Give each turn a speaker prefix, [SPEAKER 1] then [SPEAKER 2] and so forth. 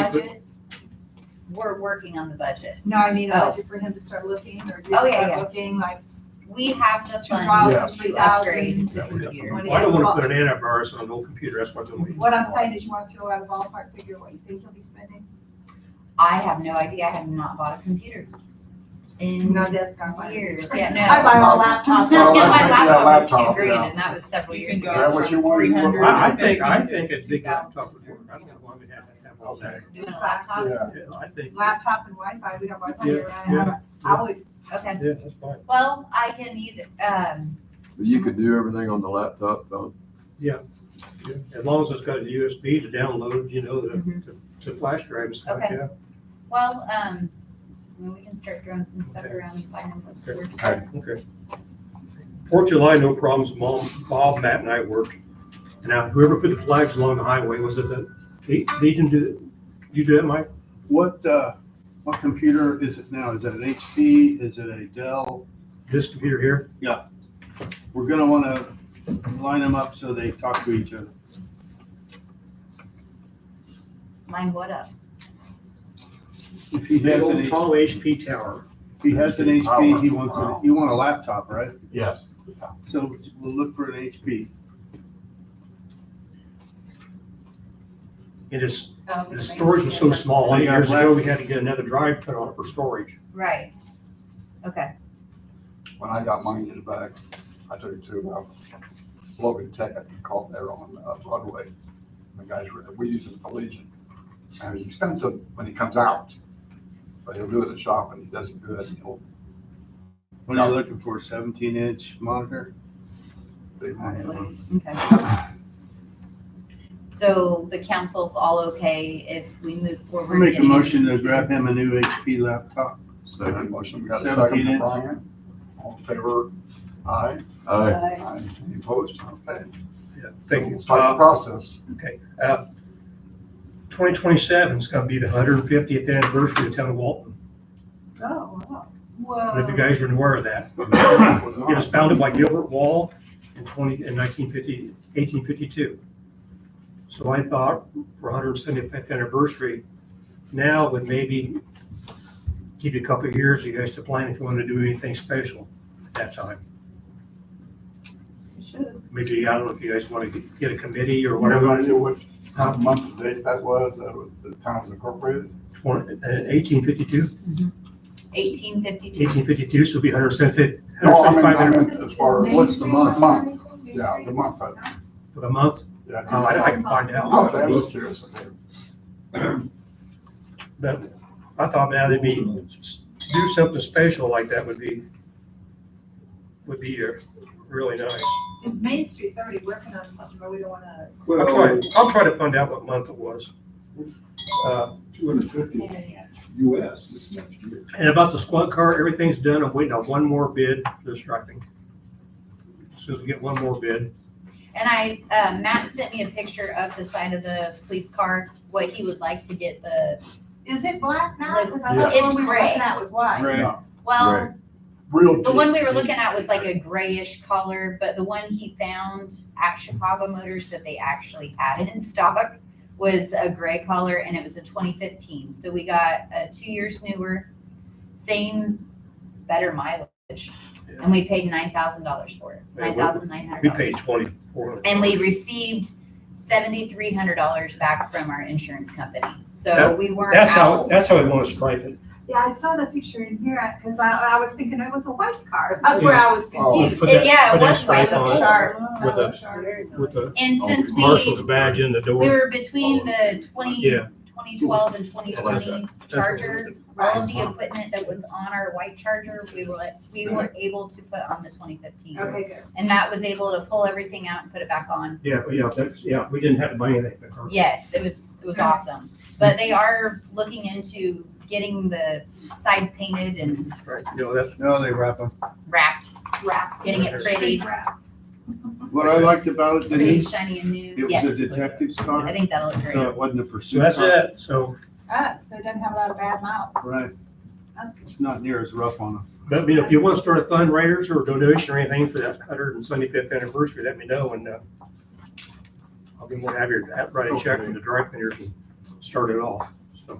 [SPEAKER 1] budget?
[SPEAKER 2] We're working on the budget.
[SPEAKER 1] No, I mean, a
[SPEAKER 2] Oh.
[SPEAKER 1] budget for him to start looking or you
[SPEAKER 2] Oh, yeah,
[SPEAKER 1] start
[SPEAKER 2] yeah.
[SPEAKER 1] looking like
[SPEAKER 2] We have the
[SPEAKER 1] two thousand,
[SPEAKER 2] funds
[SPEAKER 1] three
[SPEAKER 2] to upgrade
[SPEAKER 1] thousand.
[SPEAKER 2] the computer.
[SPEAKER 3] Well, I don't wanna put an antivirus on an old computer, that's what I'm doing.
[SPEAKER 1] What I'm saying is you wanna throw out a ballpark figure, what you think he'll be spending?
[SPEAKER 2] I have no idea. I have not bought a computer in
[SPEAKER 1] No desk, I'm like,
[SPEAKER 2] years. Yeah, no.
[SPEAKER 1] I buy all laptops.
[SPEAKER 2] Yeah,
[SPEAKER 4] Well,
[SPEAKER 2] my
[SPEAKER 4] let's take that
[SPEAKER 2] laptop was two
[SPEAKER 4] laptop,
[SPEAKER 2] grand
[SPEAKER 4] yeah.
[SPEAKER 2] and that was several
[SPEAKER 5] You
[SPEAKER 2] years
[SPEAKER 5] can go
[SPEAKER 4] Is that
[SPEAKER 2] ago.
[SPEAKER 4] what
[SPEAKER 5] from
[SPEAKER 4] you want? You want-
[SPEAKER 5] 300
[SPEAKER 3] I, I
[SPEAKER 5] to
[SPEAKER 3] think, I
[SPEAKER 5] 15.
[SPEAKER 3] think a big laptop would work, I don't know why we have to have all that.
[SPEAKER 2] Doing a laptop?
[SPEAKER 4] Yeah.
[SPEAKER 3] Yeah, I think,
[SPEAKER 1] Laptop and Wi-Fi, we don't buy
[SPEAKER 3] Yeah,
[SPEAKER 1] Wi-Fi. I- I would,
[SPEAKER 2] Okay.
[SPEAKER 3] yeah, that's fine.
[SPEAKER 2] Well, I can either, um,
[SPEAKER 6] You could do everything on the laptop, though.
[SPEAKER 3] As long as it's got a USB to download, you know, the,
[SPEAKER 2] Mhm.
[SPEAKER 3] to- to flash drive and stuff,
[SPEAKER 2] Okay.
[SPEAKER 3] yeah.
[SPEAKER 2] well, um, I mean, we can start throwing some stuff around and find out what's worth.
[SPEAKER 4] Okay.
[SPEAKER 3] Okay. Fourth July, no problems, Mom, Bob, Matt and I worked. And Now, whoever put the flags along the highway, was it the Le- Legion, did, did you do that, Mike?
[SPEAKER 7] What, uh, what computer is it now? Is it an HP? Is it a Dell?
[SPEAKER 3] This computer here?
[SPEAKER 7] We're gonna wanna line them up so they talk to each other.
[SPEAKER 2] Line what up?
[SPEAKER 7] If he
[SPEAKER 3] The
[SPEAKER 7] has an,
[SPEAKER 3] old
[SPEAKER 7] if
[SPEAKER 3] tall HP tower.
[SPEAKER 7] he has an HP, he wants, a- you want a laptop, right?
[SPEAKER 4] Yes.
[SPEAKER 7] So we'll look for an HP.
[SPEAKER 3] And it's,
[SPEAKER 1] um.
[SPEAKER 3] the storage was so small,
[SPEAKER 7] I
[SPEAKER 3] eight
[SPEAKER 7] got
[SPEAKER 3] years ago,
[SPEAKER 7] left.
[SPEAKER 3] we had to get another drive put on it for storage.
[SPEAKER 2] Right. Okay.
[SPEAKER 4] When I got mine in the back, I took it to, um, Logan Tech, I called there on uh, Broadway. The guys were, we use it at the Legion. And it's expensive when it comes out, but he'll do it at the shop and he does it good. and He'll,
[SPEAKER 7] What are you looking for? Seventeen inch monitor?
[SPEAKER 4] they want it.
[SPEAKER 2] Okay. So the council's all okay if we move
[SPEAKER 7] I'll
[SPEAKER 2] forward?
[SPEAKER 7] make a
[SPEAKER 2] getting-
[SPEAKER 7] motion to grab him a new HP laptop.
[SPEAKER 4] Got a
[SPEAKER 6] Second.
[SPEAKER 4] Motion, we got a
[SPEAKER 7] Seventeen
[SPEAKER 4] second from
[SPEAKER 7] inch.
[SPEAKER 4] Brian. All in favor? Aye.
[SPEAKER 6] Aye.
[SPEAKER 4] Aye. Any opposed? Okay.
[SPEAKER 3] Yeah,
[SPEAKER 4] So we'll Start
[SPEAKER 3] Uh,
[SPEAKER 4] the process.
[SPEAKER 3] Twenty twenty-seven is gonna be the hundred and fiftieth anniversary of the town of Walton.
[SPEAKER 1] Oh, wow.
[SPEAKER 3] I don't know if you
[SPEAKER 1] Whoa.
[SPEAKER 3] guys are aware of that.
[SPEAKER 4] Was
[SPEAKER 3] It was founded by Gilbert Wall in twenty, in 1950 1852. So I thought for hundred and seventy-fifth anniversary, now would maybe give you a couple of years, you guys to plan if you want to do anything special at that time.
[SPEAKER 1] You should.
[SPEAKER 3] Maybe, I don't know if you guys want to get a committee or
[SPEAKER 4] What
[SPEAKER 3] whatever.
[SPEAKER 4] I knew what month and date that was, that was the town was incorporated.
[SPEAKER 3] uh, Eighteen fifty-two,
[SPEAKER 2] 1852.
[SPEAKER 3] eighteen fifty-two, so it'll be hundred and fifty,
[SPEAKER 4] No, I
[SPEAKER 3] hundred
[SPEAKER 4] mean, Oh, uh, I
[SPEAKER 3] and fifty-five
[SPEAKER 4] meant as far as,
[SPEAKER 7] what's the month?
[SPEAKER 4] Month. yeah, the month. of it.
[SPEAKER 3] for the month.
[SPEAKER 4] Yeah,
[SPEAKER 3] Uh, I I can find
[SPEAKER 4] Oh, I
[SPEAKER 3] out.
[SPEAKER 4] was curious. okay.
[SPEAKER 3] But I thought now it'd be, to do something special like that would be, would be uh, really nice.
[SPEAKER 1] And Main Street's already working on something, but we don't wanna.
[SPEAKER 3] I'll try, I'll try to find out what month it was. Uh,
[SPEAKER 8] two hundred fifty US this next year.
[SPEAKER 3] And about the squad car, everything's done. I'm waiting on one more bid for the striping. As soon as we get one more bid,
[SPEAKER 2] And I, uh, Matt sent me a picture of the side of the police car, what he would like to get the,
[SPEAKER 1] Is it black now? Cause I
[SPEAKER 2] Yeah.
[SPEAKER 1] thought the one
[SPEAKER 2] It's
[SPEAKER 1] we were
[SPEAKER 2] gray.
[SPEAKER 1] looking at was white.
[SPEAKER 7] Right.
[SPEAKER 2] well,
[SPEAKER 6] Right.
[SPEAKER 4] Real.
[SPEAKER 2] the one we were
[SPEAKER 4] deep,
[SPEAKER 2] looking at was
[SPEAKER 4] deep.
[SPEAKER 2] like a grayish color, but the one he found at Chicago Motors that they actually had it in stock was a gray color and it was a 2015. So we got uh, two years newer, same, better mileage. And we paid $9,000 for it,
[SPEAKER 3] Yeah, we-
[SPEAKER 2] $9,900.
[SPEAKER 3] we paid twenty-four.
[SPEAKER 2] And we received seventy-three hundred dollars back from our insurance company, so
[SPEAKER 3] That-
[SPEAKER 2] we weren't
[SPEAKER 3] That's how,
[SPEAKER 2] out.
[SPEAKER 3] that's how we want to stripe it.
[SPEAKER 1] Yeah, I saw the picture in here, cause I, I was thinking it was a white car. That's where I was
[SPEAKER 4] Oh.
[SPEAKER 1] confused.
[SPEAKER 3] Put that-
[SPEAKER 2] Yeah,
[SPEAKER 3] put that
[SPEAKER 2] it was white
[SPEAKER 3] stripe
[SPEAKER 2] with
[SPEAKER 3] on it
[SPEAKER 2] sharp,
[SPEAKER 3] With a-
[SPEAKER 1] Sure.
[SPEAKER 3] With the
[SPEAKER 2] and
[SPEAKER 4] Oh,
[SPEAKER 2] since we,
[SPEAKER 3] marshal's badge in the
[SPEAKER 2] we
[SPEAKER 3] door.
[SPEAKER 2] were between the twenty,
[SPEAKER 3] Yeah.
[SPEAKER 2] twenty twelve and twenty
[SPEAKER 6] That's
[SPEAKER 2] twenty
[SPEAKER 3] that's what
[SPEAKER 2] Charger,
[SPEAKER 3] we're
[SPEAKER 2] all of
[SPEAKER 3] doing.
[SPEAKER 2] the equipment that was on our white Charger, we were, we were able to put on the twenty fifteen.
[SPEAKER 1] Okay, good.
[SPEAKER 2] And that was able to pull everything out and put it back on.
[SPEAKER 3] Yeah, yeah, that's, yeah, we didn't have to buy anything. for her.
[SPEAKER 2] Yes, it was, it was awesome, but they are looking into getting the sides painted and
[SPEAKER 3] Right, you know, that's,
[SPEAKER 7] No, they wrap them.
[SPEAKER 2] wrapped,
[SPEAKER 1] Wrap.
[SPEAKER 2] getting it pretty.
[SPEAKER 1] Street wrap.
[SPEAKER 7] What I liked about it,
[SPEAKER 2] pretty
[SPEAKER 7] Denise,
[SPEAKER 2] shiny and new.
[SPEAKER 7] it was
[SPEAKER 2] Yes,
[SPEAKER 7] a detective's
[SPEAKER 2] I
[SPEAKER 7] car,
[SPEAKER 2] think that'll look
[SPEAKER 7] so
[SPEAKER 2] great.
[SPEAKER 7] it wasn't a
[SPEAKER 3] so
[SPEAKER 7] pursuit car.
[SPEAKER 3] that's it, so.
[SPEAKER 1] Ah, so it doesn't have a lot of bad mouths.
[SPEAKER 7] Right,
[SPEAKER 1] That's good.
[SPEAKER 7] it's not near as rough on them.
[SPEAKER 3] But, you know, if you want to start a fundraiser or donation or anything for that hundred and seventy-fifth anniversary, let me know and, uh, I'll be more than happy to write a check from the dry cleaners and start it off.